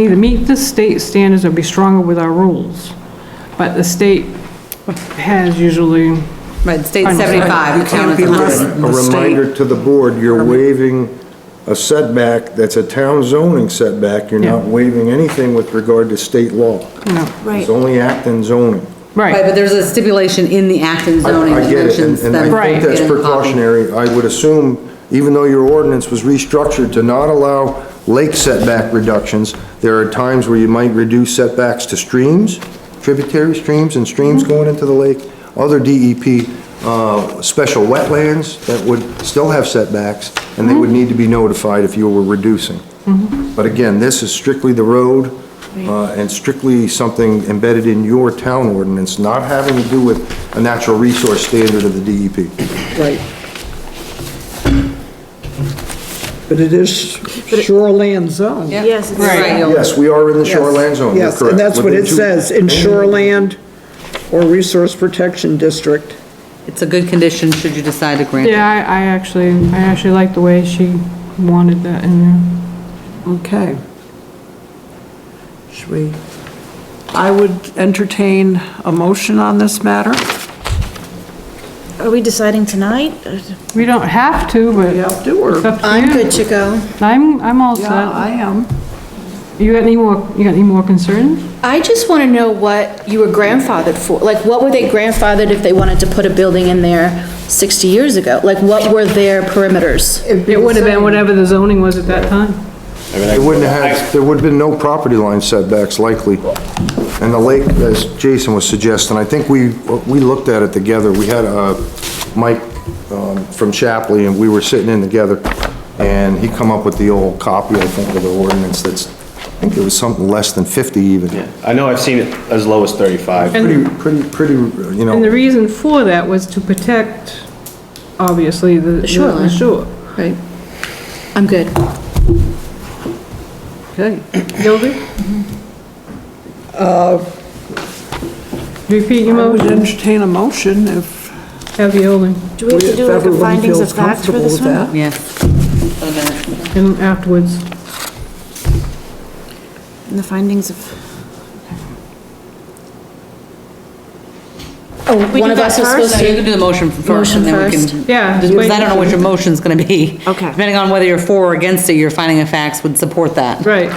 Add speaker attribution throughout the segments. Speaker 1: either meet the state standards or be stronger with our rules. But the state has usually,
Speaker 2: Right, state's
Speaker 1: I'm sorry.
Speaker 2: 75, the town is 100.
Speaker 3: A reminder to the board, you're waiving a setback that's a town zoning setback. You're not
Speaker 1: Yeah.
Speaker 3: waiving anything with regard to state law.
Speaker 1: you know,
Speaker 3: It's only Acton zoning.
Speaker 2: Right,
Speaker 1: right,
Speaker 2: but there's a stipulation in the Acton
Speaker 3: I-
Speaker 2: zoning
Speaker 3: I
Speaker 2: that
Speaker 3: get it, and-
Speaker 2: mentions that.
Speaker 3: And I
Speaker 1: Right.
Speaker 3: think that's precautionary. I would assume, even though your ordinance was restructured to not allow lake setback reductions, there are times where you might reduce setbacks to streams, tributary streams and streams going into the lake, other DEP, uh, special wetlands that would still have setbacks, and they would need to be notified if you were reducing. But again, this is strictly the road, uh, and strictly something embedded in your town ordinance, not having to do with a natural resource standard of the E DEP.
Speaker 4: Right. But it is shoreland zone.
Speaker 2: Yeah.
Speaker 5: Yes, it's-
Speaker 1: Right.
Speaker 2: Right.
Speaker 3: Yes, we are in the
Speaker 4: Yes,
Speaker 3: shoreland zone, you're
Speaker 4: Yes,
Speaker 3: correct.
Speaker 4: and that's what
Speaker 3: Within
Speaker 4: it
Speaker 3: two-
Speaker 4: says, in shoreland or resource protection district.
Speaker 2: It's a good condition, should you decide to grant it.
Speaker 1: yeah, I, I actually, I actually like the way she wanted that in there.
Speaker 4: Okay. Should we, I would entertain a motion on this matter.
Speaker 5: Are we deciding tonight?
Speaker 6: Uh,
Speaker 1: We don't have to, but
Speaker 4: We
Speaker 1: it's
Speaker 4: have to, or?
Speaker 1: up to you.
Speaker 5: to go.
Speaker 1: I'm, I'm all
Speaker 4: Yeah, I
Speaker 1: set.
Speaker 4: am.
Speaker 1: You got any more, you got any more concerns?
Speaker 5: I just want to know what you were grandfathered for, like, what were they grandfathered if they wanted to put a building in there 60 years ago? Like, what were their perimeters?
Speaker 1: It would have been whatever the zoning was at that time.
Speaker 3: There wouldn't have, had- there would have been no property line setbacks likely. And the lake, as Jason was suggesting, I think we, we looked at it together. We had, uh, Mike, um, from Shapley, and we were sitting in together, and he come up with the old copy, I think, of the ordinance that's, I think it was something less than 50 even.
Speaker 7: I know I've seen it as low as 35.
Speaker 3: Pretty, pretty, pretty, you know.
Speaker 1: And the reason for that was to protect, obviously, the the
Speaker 5: shoreline.
Speaker 1: shore.
Speaker 4: Right.
Speaker 5: I'm good.
Speaker 4: Okay.
Speaker 1: Gilby? Repeat your
Speaker 4: I would
Speaker 1: motion,
Speaker 4: entertain a motion if
Speaker 1: have your holding,
Speaker 6: Do we have to
Speaker 4: if
Speaker 6: do like a
Speaker 4: everyone
Speaker 6: findings
Speaker 4: feels
Speaker 6: of fact for
Speaker 4: comfortable
Speaker 6: this
Speaker 4: with
Speaker 6: one?
Speaker 4: that.
Speaker 2: Yes.
Speaker 1: and afterwards.
Speaker 6: And the findings of,
Speaker 5: Oh,
Speaker 6: We
Speaker 5: one
Speaker 6: do
Speaker 5: of
Speaker 6: that
Speaker 5: us was
Speaker 6: first?
Speaker 5: supposed
Speaker 2: So
Speaker 5: to.
Speaker 2: you can do the motion first,
Speaker 5: Motion
Speaker 2: and then we
Speaker 5: first.
Speaker 2: can.
Speaker 1: Yeah, just
Speaker 2: Because
Speaker 1: wait.
Speaker 2: I don't know what your motion's gonna be.
Speaker 6: Okay.
Speaker 2: Depending on whether you're for or against it, your finding of facts would support that.
Speaker 1: Right,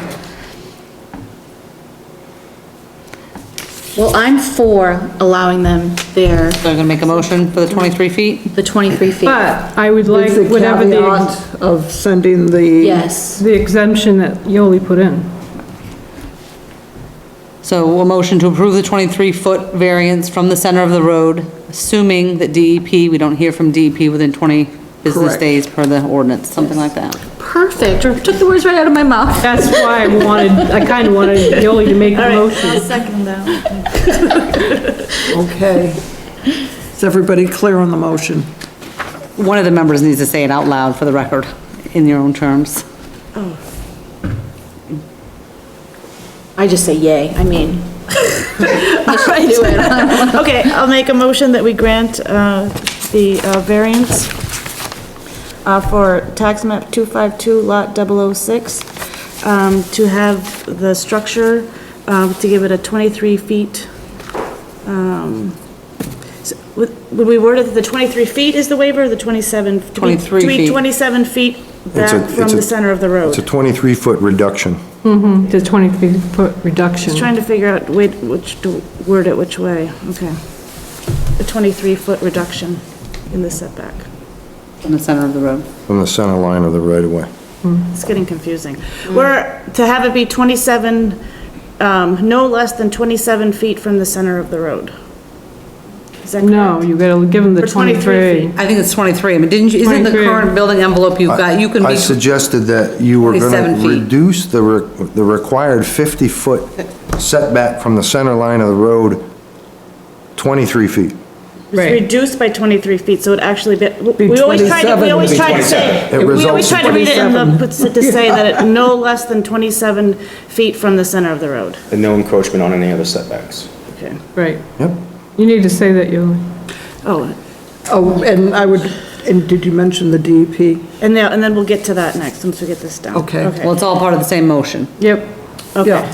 Speaker 5: Well, I'm for allowing them their,
Speaker 2: So I'm gonna make a motion for the 23 feet?
Speaker 5: the 23 feet.
Speaker 1: but I would like
Speaker 4: With the
Speaker 1: whatever the, ex-
Speaker 4: caveat of sending the.
Speaker 5: Yes,
Speaker 1: the exemption that Yoli put in.
Speaker 2: So a motion to approve the 23-foot variance from the center of the road, assuming that DEP, we don't hear from DEP within 20 business
Speaker 4: Correct.
Speaker 2: days per the ordinance, something like that.
Speaker 5: perfect, took the words right out of my mouth.
Speaker 1: That's why I wanted, I kind of wanted Yoli to make the motion.
Speaker 6: second though.
Speaker 4: Okay. Is everybody clear on the motion?
Speaker 2: One of the members needs to say it out loud for the record, in your own terms.
Speaker 5: I just say yay, I mean. I do it.
Speaker 6: Okay, I'll make a motion that we grant uh, the uh, variance uh, for tax map 252 lot 006 um, to have the structure, um, to give it a 23 feet. um, s- Would would we word it that the 23 feet is the waiver, or the 27?
Speaker 2: 23
Speaker 6: To be
Speaker 2: feet.
Speaker 6: 27 feet
Speaker 3: It's
Speaker 6: back
Speaker 3: a-
Speaker 6: from
Speaker 3: it's a-
Speaker 6: the center of the road.
Speaker 3: It's a 23-foot reduction.
Speaker 1: The 23-foot reduction.
Speaker 6: Just trying to figure out whi- which, to word it which way, okay. A 23-foot reduction in the setback.
Speaker 2: From the center of the road.
Speaker 3: from the center line of the right-of-way.
Speaker 6: It's getting confusing. We're, to have it be 27, um, no less than 27 feet from the center of the road. Is that correct?
Speaker 1: No, you gotta give them the
Speaker 6: For 23
Speaker 1: 23.
Speaker 6: feet.
Speaker 2: I think it's 23, I mean, didn't you, isn't the
Speaker 1: 23.
Speaker 2: current building envelope you've got, you can
Speaker 3: I
Speaker 2: be,
Speaker 3: suggested that you were
Speaker 2: 27
Speaker 3: going to
Speaker 2: feet.
Speaker 3: reduce the, re- the required 50-foot setback from the center line of the road 23 feet.
Speaker 6: It's
Speaker 1: Right.
Speaker 6: reduced by 23 feet, so it actually, be- we we always try to,
Speaker 4: 27
Speaker 6: we always
Speaker 4: would be
Speaker 6: try to say,
Speaker 3: It
Speaker 6: we always
Speaker 3: results in
Speaker 6: try to read it in the, puts it to say that it no less than 27 feet from the center of the road.
Speaker 7: And no encroachment on any other setbacks.
Speaker 6: Okay.
Speaker 1: Right.
Speaker 3: Yep.
Speaker 1: You need to say that, Yoli.
Speaker 6: Oh,
Speaker 4: Oh, and I would, and did you mention the E DEP?
Speaker 6: and now, and then we'll get to that next, once we get this down.
Speaker 4: Okay.
Speaker 2: well, it's all part of the same motion.
Speaker 1: Yep.
Speaker 8: Okay.
Speaker 6: Yeah.